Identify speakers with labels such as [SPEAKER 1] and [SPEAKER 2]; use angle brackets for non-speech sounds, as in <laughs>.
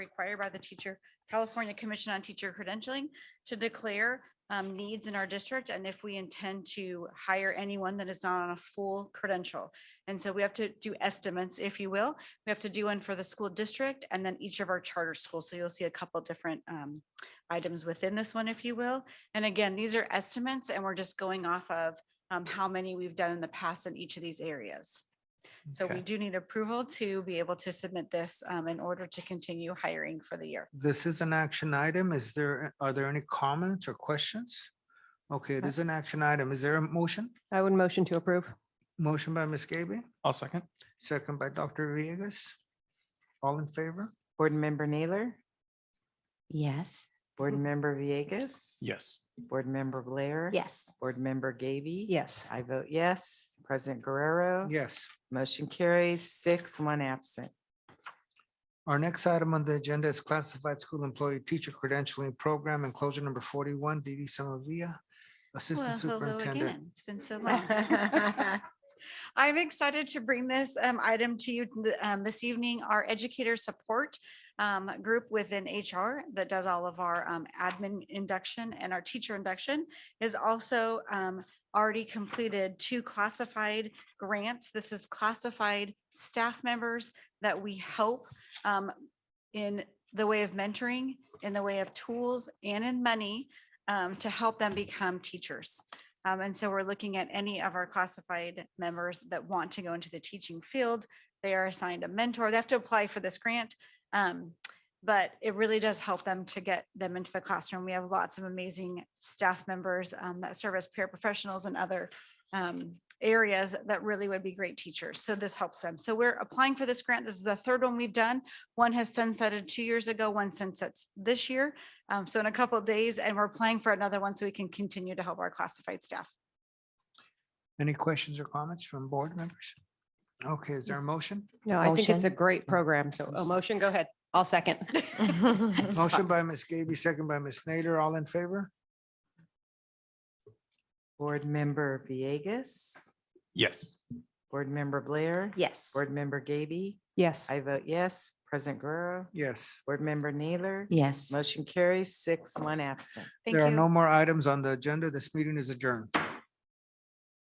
[SPEAKER 1] required by the teacher, California Commission on Teacher Credentialing to declare um, needs in our district and if we intend to hire anyone that is not on a full credential. And so we have to do estimates, if you will. We have to do one for the school district and then each of our charter schools. So you'll see a couple different um, items within this one, if you will. And again, these are estimates and we're just going off of um, how many we've done in the past in each of these areas. So we
[SPEAKER 2] Okay.
[SPEAKER 1] do need approval to be able to submit this um, in order to continue hiring for the year.
[SPEAKER 2] This is an action item. Is there, are there any comments or questions? Okay, it is an action item. Is there a motion?
[SPEAKER 3] I would motion to approve.
[SPEAKER 2] Motion by Ms. Gaby,
[SPEAKER 4] I'll second.
[SPEAKER 2] second by Dr. Villegas. All in favor?
[SPEAKER 5] Board Member Naylor,
[SPEAKER 6] Yes.
[SPEAKER 5] Board Member Villegas.
[SPEAKER 4] Yes.
[SPEAKER 5] Board Member Blair.
[SPEAKER 6] Yes.
[SPEAKER 5] Board Member Gaby.
[SPEAKER 3] Yes.
[SPEAKER 5] I vote yes. President Guerrero.
[SPEAKER 2] Yes.
[SPEAKER 5] Motion carries six, one absent.
[SPEAKER 2] Our next item on the agenda is classified school employee teacher credentialing program enclosure number forty-one, Didi Samavia, Assistant Superintendent.
[SPEAKER 1] It's been so long.
[SPEAKER 5] long.
[SPEAKER 1] <laughs> I'm excited to bring this um, item to you th- um, this evening, our educator support um, group within HR that does all of our um, admin induction and our teacher induction is also um, already completed two classified grants. This is classified staff members that we help um, in the way of mentoring, in the way of tools and in money um, to help them become teachers. Um, and so we're looking at any of our classified members that want to go into the teaching field. They are assigned a mentor. They have to apply for this grant. Um, but it really does help them to get them into the classroom. We have lots of amazing staff members um, that serve as paraprofessionals and other um, areas that really would be great teachers. So this helps them. So we're applying for this grant. This is the third one we've done. One has sunsetted two years ago, one sunsets this year. Um, so in a couple of days, and we're applying for another one so we can continue to help our classified staff.
[SPEAKER 2] Any questions or comments from board members? Okay, is there a motion?
[SPEAKER 3] No, I think it's a
[SPEAKER 6] Motion.
[SPEAKER 3] great program. So a motion, go ahead. I'll second.
[SPEAKER 2] Motion by Ms. Gaby, second by Ms. Nader, all in favor?
[SPEAKER 5] Board Member Villegas,
[SPEAKER 4] Yes.
[SPEAKER 5] Board Member Blair.
[SPEAKER 6] Yes.
[SPEAKER 5] Board Member Gaby.
[SPEAKER 3] Yes.
[SPEAKER 5] I vote yes. President Guerrero,
[SPEAKER 2] Yes.
[SPEAKER 5] Board Member Naylor.
[SPEAKER 6] Yes.
[SPEAKER 5] Motion carries six, one absent.
[SPEAKER 1] Thank
[SPEAKER 2] There are
[SPEAKER 1] you.
[SPEAKER 2] no more items on the agenda. This meeting is adjourned.